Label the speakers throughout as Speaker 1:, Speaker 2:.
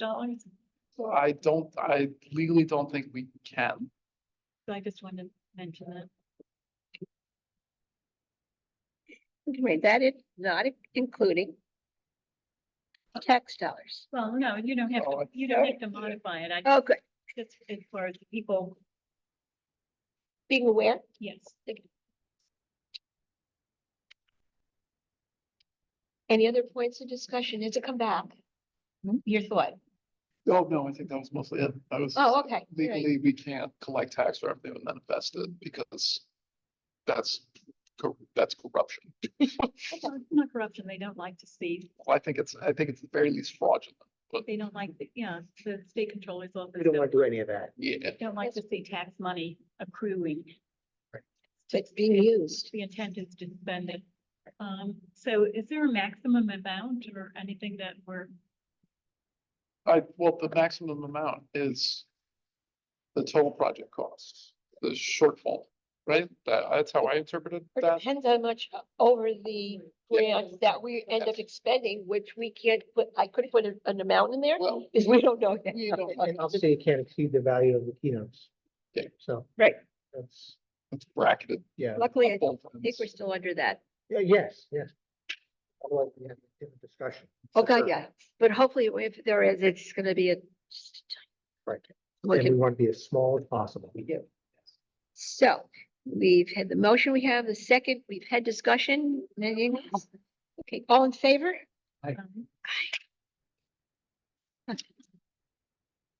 Speaker 1: dollars?
Speaker 2: I don't, I legally don't think we can.
Speaker 1: So I just wanted to mention that.
Speaker 3: Wait, that is not including tax dollars.
Speaker 1: Well, no, you don't have,
Speaker 2: Oh,
Speaker 1: to.
Speaker 2: I-
Speaker 1: you don't have to modify it. I
Speaker 3: Oh, good.
Speaker 1: just, as far as people,
Speaker 3: Being aware,
Speaker 1: yes.
Speaker 3: any other points of discussion? Is it come back? Your thought?
Speaker 2: Oh, no, I think that was mostly it. That was
Speaker 3: Oh, okay. all right.
Speaker 2: legally, we can't collect tax revenue and then invest it because that's, cor- that's corruption.
Speaker 1: Well, it's Not corruption, they don't like to see,
Speaker 2: Well, I think it's, I think it's at the very least fraudulent.
Speaker 1: they don't like, the- yeah, the state controller's office.
Speaker 4: We don't want to do any of that.
Speaker 2: Yeah,
Speaker 1: don't like to see tax money accruing.
Speaker 3: So it's being used.
Speaker 1: The intent is to spend it. Um, so is there a maximum amount or anything that we're,
Speaker 2: I, well, the maximum amount is the total project costs, the shortfall, right? That, that's how I interpreted
Speaker 3: It
Speaker 2: that.
Speaker 3: depends how much o- over the grant that we end up expending, which we can't put, I couldn't put an- an amount in there
Speaker 2: Well,
Speaker 3: because we don't know. yet.
Speaker 2: we don't,
Speaker 4: And I'll say you can't exceed the value of the keynotes.
Speaker 2: Yeah.
Speaker 4: So.
Speaker 3: Right.
Speaker 4: That's,
Speaker 2: it's bracketed.
Speaker 4: yeah,
Speaker 3: Luckily, I
Speaker 2: both
Speaker 3: think we're
Speaker 2: ends.
Speaker 3: still under that.
Speaker 4: yeah, yes, yes. Otherwise, we have a different discussion.
Speaker 3: Okay,
Speaker 2: Sure.
Speaker 3: yeah. But hopefully if there is, it's gonna be a.
Speaker 4: Right.
Speaker 3: Look
Speaker 4: And
Speaker 3: at
Speaker 4: we want to be as small as possible. We do.
Speaker 3: So we've had the motion, we have the second, we've had discussion. Anything else? Okay, all in favor?
Speaker 1: um,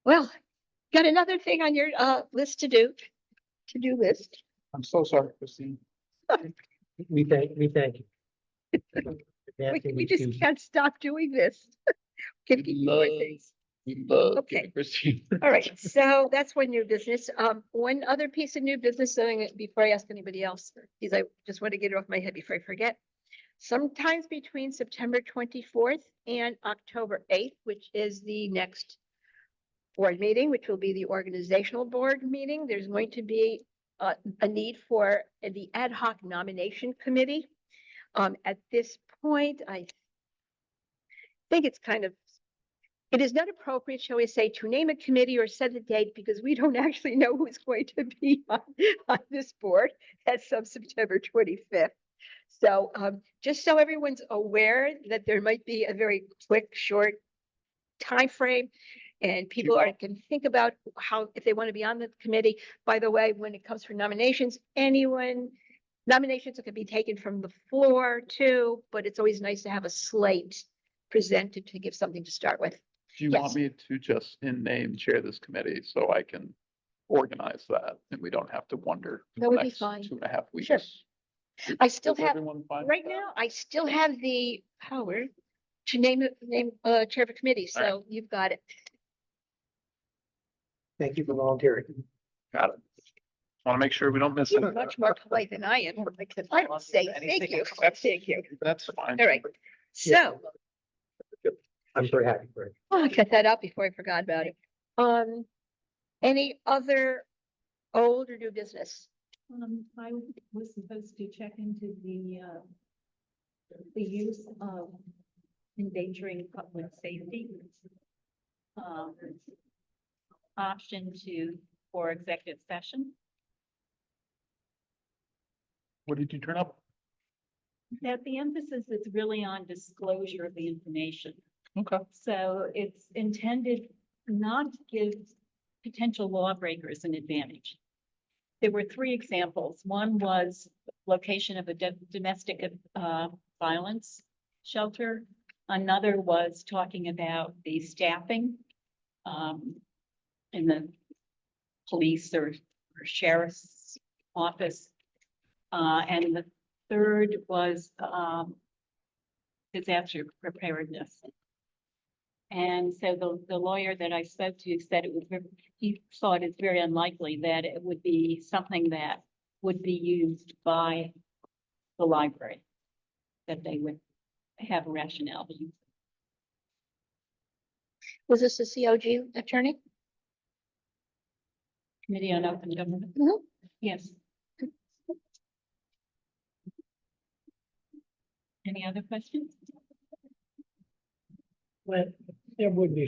Speaker 3: Well, got another thing on your uh list to do, to-do list.
Speaker 2: I'm so sorry, Christine.
Speaker 4: We thank, we thank you.
Speaker 3: We
Speaker 4: Nancy,
Speaker 3: we just
Speaker 4: choose-
Speaker 3: can't stop doing this. Can
Speaker 2: We
Speaker 3: keep doing
Speaker 2: love-
Speaker 3: things.
Speaker 2: We love you,
Speaker 3: Okay.
Speaker 2: Christine.
Speaker 3: All right, so that's one new business. Um, one other piece of new business, doing it before I ask anybody else, because I just want to get it off my head before I forget. Sometimes between September twenty-fourth and October eighth, which is the next board meeting, which will be the organizational board meeting, there's going to be a, a need for the ad hoc nomination committee. Um, at this point, I think it's kind of it is not appropriate, shall we say, to name a committee or set a date because we don't actually know who's going to be on, on this board as of September twenty-fifth. So, um, just so everyone's aware that there might be a very quick, short time frame, and people are, can think about how, if they want to be on the committee. By the way, when it comes for nominations, anyone, nominations can be taken from the floor too, but it's always nice to have a slate presented to give something to start with.
Speaker 2: Do you
Speaker 3: Yes.
Speaker 2: want me to just in name chair this committee so I can organize that and we don't have to wonder? for
Speaker 3: That
Speaker 2: the
Speaker 3: would be
Speaker 2: next
Speaker 3: fine.
Speaker 2: Two and a half weeks.
Speaker 3: Sure. I still
Speaker 2: Is
Speaker 3: have,
Speaker 2: everyone fine with
Speaker 3: right
Speaker 2: that?
Speaker 3: now, I still have the power to name, it- name, uh, chair of a committee,
Speaker 2: All right.
Speaker 3: so you've got it.
Speaker 4: Thank you for volunteering.
Speaker 2: Got it. Want to make sure we don't miss it.
Speaker 3: You're much more polite than I am, because I don't say thank you, thank you.
Speaker 2: That's fine.
Speaker 3: All right.
Speaker 4: Yeah.
Speaker 3: So,
Speaker 4: I'm very happy for it.
Speaker 3: oh, I cut that out before I forgot about it. Um, any other old or new business?
Speaker 1: um, I was supposed to check into the, uh, the use of endangering public safety. Um, option to, for executive session.
Speaker 2: What did you turn up?
Speaker 1: That the emphasis is really on disclosure of the information.
Speaker 2: Okay.
Speaker 1: So it's intended not to give potential lawbreakers an advantage. There were three examples. One was location of a do- domestic uh, violence shelter. Another was talking about the staffing um, in the police or or sheriff's office. Uh, And the third was um, disaster preparedness. And so the, the lawyer that I spoke to said it was, ver- he thought it's very unlikely that it would be something that would be used by the library, that they would have a rationale.
Speaker 3: Was this the COG attorney?
Speaker 1: Committee on Open Government,
Speaker 3: Mhm.
Speaker 1: yes. Any other questions?
Speaker 5: Well, there would be